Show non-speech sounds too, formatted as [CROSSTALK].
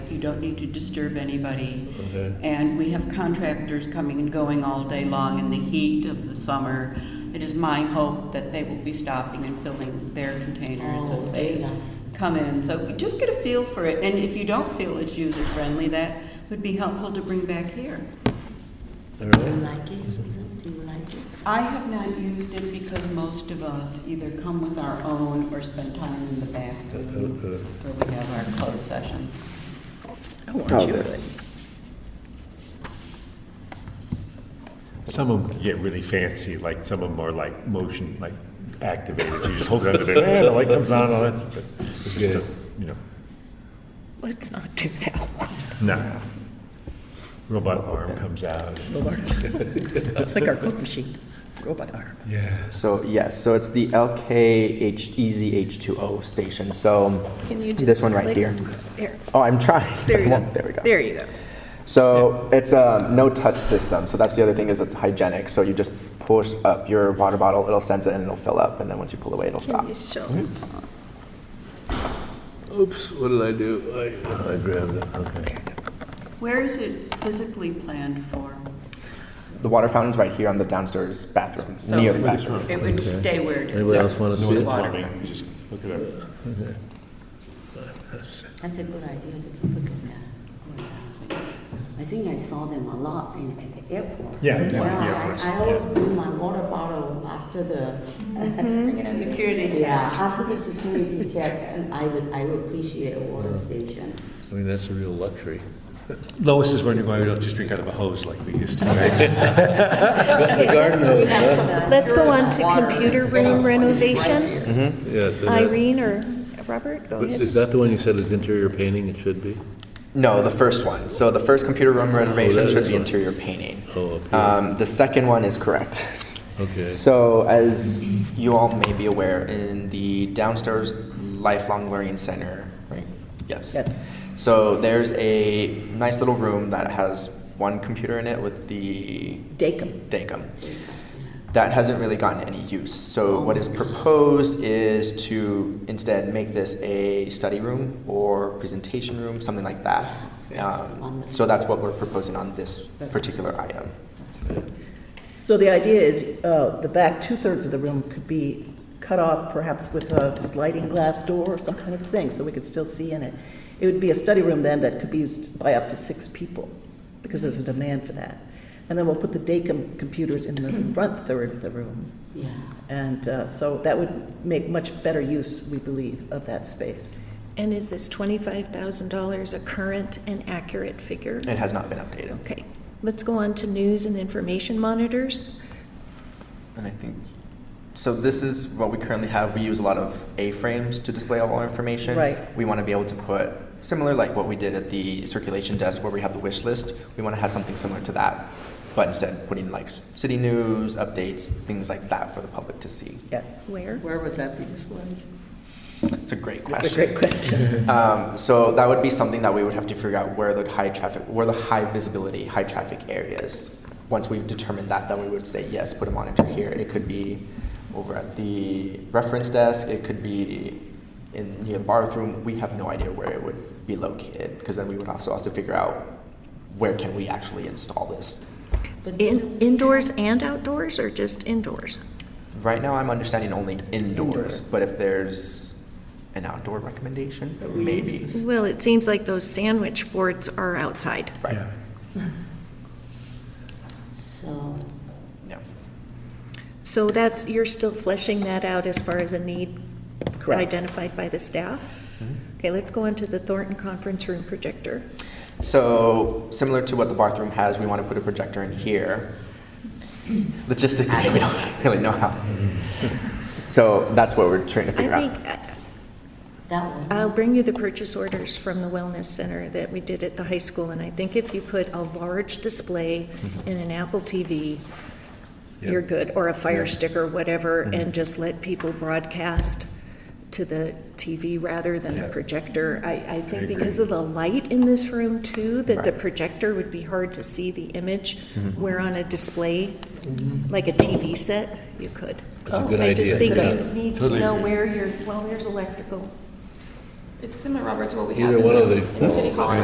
you don't need to disturb anybody. Okay. And we have contractors coming and going all day long in the heat of the summer. It is my hope that they will be stopping and filling their containers as Oh, they yeah. come in. So just get a feel for it, and if you don't feel it's user-friendly, that would be helpful to bring back here. Do All you right. like it, Susan? Do you like it? I have not used it because most of us either come with our own or spend time in the back room Uh, where we have our closed session. Oh, this. Some of them get really fancy, like some of them are like motion, like activated. You just hold it under there, and the light comes on, all that. but It's just a, you know, Let's not do that one. no. Robot arm comes out. It's like our Cook machine, robot arm. Yeah. So yes, so it's the LKH Easy H2O station. So Can you just this one right click? here. There, Oh, I'm trying. [LAUGHS] there you I go. won't- [LAUGHS] There we go. There you go. So it's a no-touch system. So that's the other thing is it's hygienic. So you just push up your water bottle, it'll sense it and it'll fill up, and then once you pull away, it'll stop. Can you show? Oops, what did I do? I, I grabbed it, okay. Where is it physically planned for? The water fountain's right here on the downstairs bathroom, So near the it would- bathroom. It would stay where it is. Anybody else want to North see it? plumbing, just look it up. That's a good idea to look at that. I think I saw them a lot in, at the airport. Yeah, Wow, yeah, the I- airports, I always bring my water bottle after the. Mm-hmm. [LAUGHS] Security check. Yeah, after the security check, and I would, I would appreciate a water station. I mean, that's a real luxury. Lois is wondering why we don't just drink out of a hose like we used to. [LAUGHS] right? Okay, garden let's- hose, huh? Let's go on to computer room renovation. Yeah, the- Irene or Robert, go But ahead. is that the one you said is interior painting? It should be? No, the first one. So the first computer room Oh, that renovation is should be one. interior painting. Oh, up here. Um, the second one is correct. [LAUGHS] Okay. So as you all may be aware, in the downstairs lifelong learning center, right? Yes. Yes. So there's a nice little room that has one computer in it with the Dacum. Dacom. That hasn't really gotten any use. So what is proposed is to instead make this a study room or presentation room, something like that. Um, so that's what we're proposing on this particular item. So the idea is, uh, the back two-thirds of the room could be cut off perhaps with a sliding glass door or some kind of thing, so we could still see in it. It would be a study room then that could be used by up to six people, because there's a demand for that. And then we'll put the Dacom computers in the front third of the room. Yeah. And uh, so that would make much better use, we believe, of that space. And is this twenty-five thousand dollars a current and accurate figure? It has not been updated. Okay, let's go on to news and information monitors. And I think, so this is what we currently have. We use a lot of A-frames to display all our information. Right. We want to be able to put, similar like what we did at the circulation desk where we have the wish list, we want to have something similar to that, but instead putting like s- city news, updates, things like that for the public to see. Yes. Where? Where would that be displayed? It's a great question. That's a great question. [LAUGHS] Um, so that would be something that we would have to figure out where the high traffic, where the high visibility, high traffic areas. Once we've determined that, then we would say, yes, put a monitor here. It could be over at the reference desk, it could be in near the bathroom. We have no idea where it would be located, because then we would also have to figure out where can we actually install this. In- Indoors and outdoors, or just indoors? Right now, I'm understanding only indoors, but if there's an outdoor recommendation, maybe, Well, it seems like those sandwich boards are outside. right, Yeah. So, yeah. So that's, you're still fleshing that out as far as a need Correct. identified by the staff? Mm-hmm. Okay, let's go on to the Thornton Conference Room projector. So similar to what the bathroom has, we want to put a projector in here. Logistically, [LAUGHS] we don't really know how. So that's what we're trying to I figure think, out. uh, that one. I'll bring you the purchase orders from the Wellness Center that we did at the high school, and I think if you put a large display and an Apple TV, you're good, or a Fire Stick or whatever, and just let people broadcast to the TV rather than a Yeah. projector. I, I think agree. because of the light in this room too, that the Right. projector would be hard to see the image, where on a display, like a TV set, you could. That's a good Mm-hmm. Oh, I just idea, think yeah. you need to Totally know agree. where your, well, there's electrical, It's similar, Robert, to what we have Either in one of the- the. in City Hall.